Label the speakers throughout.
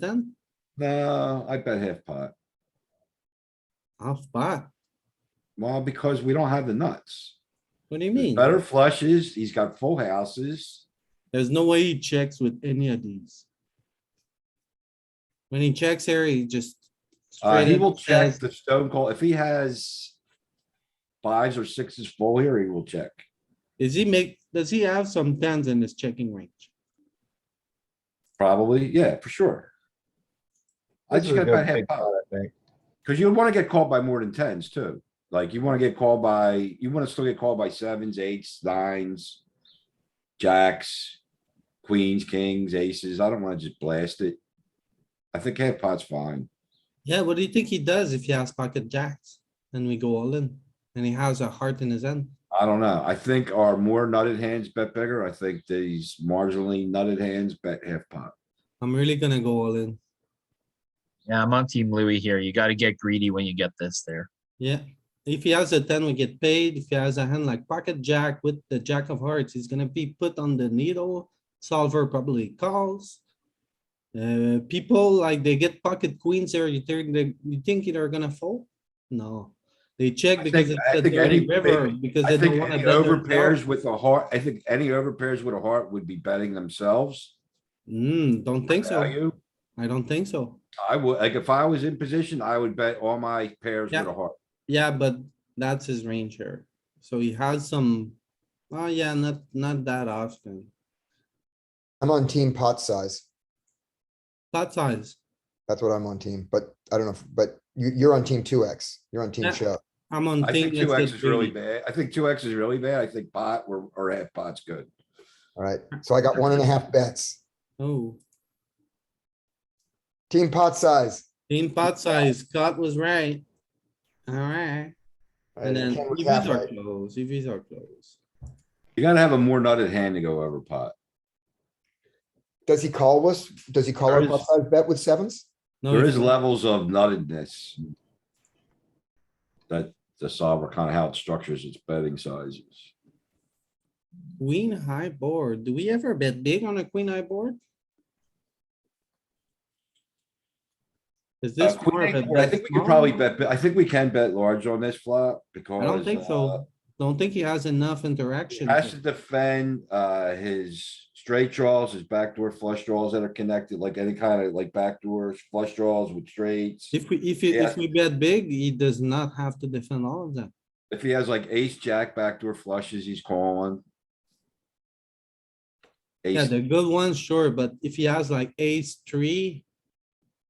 Speaker 1: ten,
Speaker 2: No, I bet half pot.
Speaker 1: half pot.
Speaker 2: Well, because we don't have the nuts.
Speaker 1: What do you
Speaker 2: There's
Speaker 1: mean?
Speaker 2: Better flushes, he's got full houses.
Speaker 1: There's no way he checks with any of these. When he checks here, he just.
Speaker 2: Uh,
Speaker 1: straight
Speaker 2: he
Speaker 1: up
Speaker 2: will check
Speaker 1: says,
Speaker 2: the stone call. If he has fives or sixes full here, he will check.
Speaker 1: Is he make, does he have some tens in his checking range?
Speaker 2: Probably, yeah, for sure. I
Speaker 3: This
Speaker 2: just
Speaker 3: is a
Speaker 2: got about
Speaker 3: good
Speaker 2: half
Speaker 3: big
Speaker 2: pot.
Speaker 3: pot, I think.
Speaker 2: Cause you wanna get called by more than tens too. Like you wanna get called by, you wanna still get called by sevens, eights, nines. Jacks, queens, kings, aces. I don't wanna just blast it. I think half pot's fine.
Speaker 1: Yeah, what do you think he does if he has pocket jacks? And we go all in, and he has a heart in his end.
Speaker 2: I don't know. I think our more nutted hands bet bigger. I think these marginally nutted hands bet half pot.
Speaker 1: I'm really gonna go all in.
Speaker 4: Yeah, I'm on Team Louis here. You got to get greedy when you get this there.
Speaker 1: Yeah, if he has a ten, we get paid. If he has a hand like pocket jack with the jack of hearts, he's gonna be put on the needle. Solver probably calls. Uh, people like they get pocket queens here, you think they, you think they're gonna fold? No, they check
Speaker 2: I
Speaker 1: because
Speaker 2: think-
Speaker 1: it's
Speaker 2: I
Speaker 1: a
Speaker 2: think
Speaker 1: dirty
Speaker 2: any-
Speaker 1: river, because
Speaker 2: I
Speaker 1: they don't
Speaker 2: think
Speaker 1: wanna.
Speaker 2: any
Speaker 1: bet their
Speaker 2: overpairs
Speaker 1: cards.
Speaker 2: with a heart, I think any overpairs with a heart would be betting themselves.
Speaker 1: Hmm, don't think so.
Speaker 2: Value.
Speaker 1: I don't think so.
Speaker 2: I would, like, if I was in position, I would bet all my pairs with
Speaker 1: Yeah.
Speaker 2: a heart.
Speaker 1: Yeah, but that's his range here. So he has some, oh yeah, not, not that often.
Speaker 5: I'm on team pot size.
Speaker 1: Pot size.
Speaker 5: That's what I'm on team, but I don't know, if- but you, you're on team two X, you're on
Speaker 1: Yeah.
Speaker 5: team shove.
Speaker 1: I'm on.
Speaker 2: I
Speaker 1: team
Speaker 2: think two
Speaker 1: that's
Speaker 2: X is really
Speaker 1: big.
Speaker 2: bad. I think two X is really bad. I think pot or, or half pot's good.
Speaker 5: Alright, so I got one and a half bets.
Speaker 1: Oh,
Speaker 5: Team pot size.
Speaker 1: team pot size, Scott was right. Alright, and then
Speaker 5: Ken was
Speaker 1: EVs
Speaker 5: half
Speaker 1: are
Speaker 5: right.
Speaker 1: close, EVs are close.
Speaker 2: You gotta have a more nutted hand to go over pot.
Speaker 5: Does he call us? Does he call
Speaker 2: There
Speaker 5: our
Speaker 2: is-
Speaker 5: pot size bet with sevens?
Speaker 1: No,
Speaker 2: There
Speaker 1: it's
Speaker 2: is levels of nuttedness. That the solver kind of how it structures its betting sizes.
Speaker 1: Queen high board, do we ever bet big on a queen high board? Is
Speaker 2: Uh,
Speaker 1: this more
Speaker 2: queen
Speaker 1: of a?
Speaker 2: eight board, I
Speaker 1: bet
Speaker 2: think we could
Speaker 1: small?
Speaker 2: probably bet, bi- I think we can bet large on this flop because.
Speaker 1: I don't think
Speaker 2: uh,
Speaker 1: so, don't think he has enough
Speaker 2: He
Speaker 1: interaction.
Speaker 2: has to defend, uh, his straight draws, his backdoor flush draws that are connected, like any kind of like backdoor flush draws with straights.
Speaker 1: If we, if, he-
Speaker 2: Yeah.
Speaker 1: if we bet big, he does not have to defend all of them.
Speaker 2: If he has like ace, jack, backdoor flushes, he's calling.
Speaker 1: Yeah,
Speaker 2: Ace,
Speaker 1: the good ones, sure, but if he has like ace three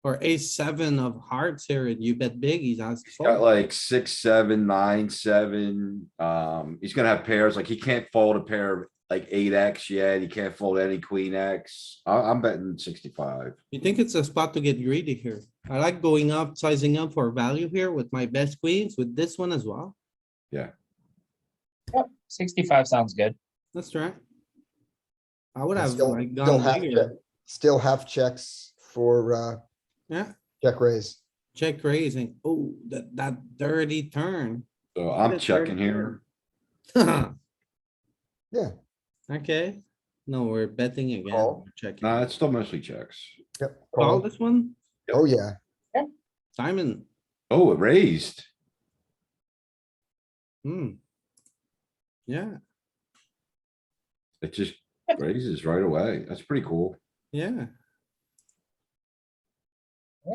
Speaker 1: or ace seven of hearts here and you bet big, he's has to
Speaker 2: he's got
Speaker 1: fold.
Speaker 2: like six, seven, nine, seven, um, he's gonna have pairs, like he can't fold a pair of like eight X yet, he can't fold any queen X. I, I'm betting sixty-five.
Speaker 1: You think it's a spot to get greedy here? I like going up, sizing up for value here with my best queens, with this one as well.
Speaker 4: 65 sounds good.
Speaker 1: That's right. I would
Speaker 5: And
Speaker 1: have
Speaker 5: still-
Speaker 1: like
Speaker 5: still
Speaker 1: gone
Speaker 5: half
Speaker 1: bigger.
Speaker 5: check- Still half checks for, uh,
Speaker 1: Yeah,
Speaker 5: check raise.
Speaker 1: check raising. Oh, that, that dirty turn.
Speaker 2: So I'm
Speaker 1: That's very
Speaker 2: checking here.
Speaker 5: Yeah.
Speaker 1: Okay, no, we're betting again.
Speaker 5: Call.
Speaker 1: We're Checking.
Speaker 2: Nah, it's still mostly checks.
Speaker 5: Yep.
Speaker 1: Call
Speaker 5: call.
Speaker 1: this one,
Speaker 5: Oh, yeah.
Speaker 1: Simon.
Speaker 2: Oh, it raised.
Speaker 1: Hmm. Yeah,
Speaker 2: It just raises right away. That's pretty cool.
Speaker 1: yeah.
Speaker 4: Yeah.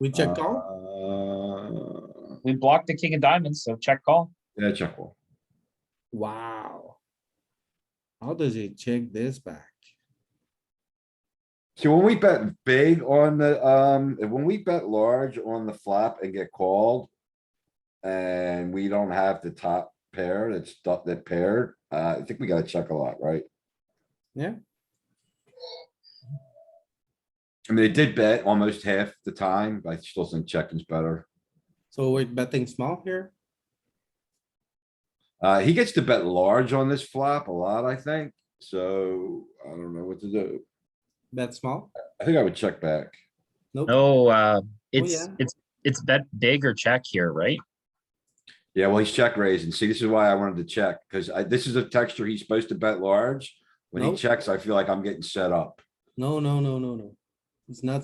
Speaker 1: We check call?
Speaker 2: Uh,
Speaker 4: We blocked the king of diamonds, so check call.
Speaker 2: Yeah, check call.
Speaker 1: Wow. How does he check this back?
Speaker 2: So when we bet big on the, um, when we bet large on the flop and get called. And we don't have the top pair that's, du- that paired, uh, I think we gotta check a lot, right?
Speaker 1: Yeah.
Speaker 2: I mean, it did bet almost half the time, but I still think checking's better.
Speaker 1: So we're betting small here?
Speaker 2: Uh, he gets to bet large on this flop a lot, I think, so I don't know what to do.
Speaker 1: Bet small?
Speaker 2: I think I would check back.
Speaker 1: Nope.
Speaker 4: No, uh, it's
Speaker 1: yeah.
Speaker 4: it's it's bet big or check here, right?
Speaker 2: Yeah, well, he's check raising. See, this is why I wanted to check, because I, this is a texture he's supposed to bet large. When he
Speaker 1: Nope.
Speaker 2: checks, I feel like I'm getting set up.
Speaker 1: No, no, no, no, no. It's not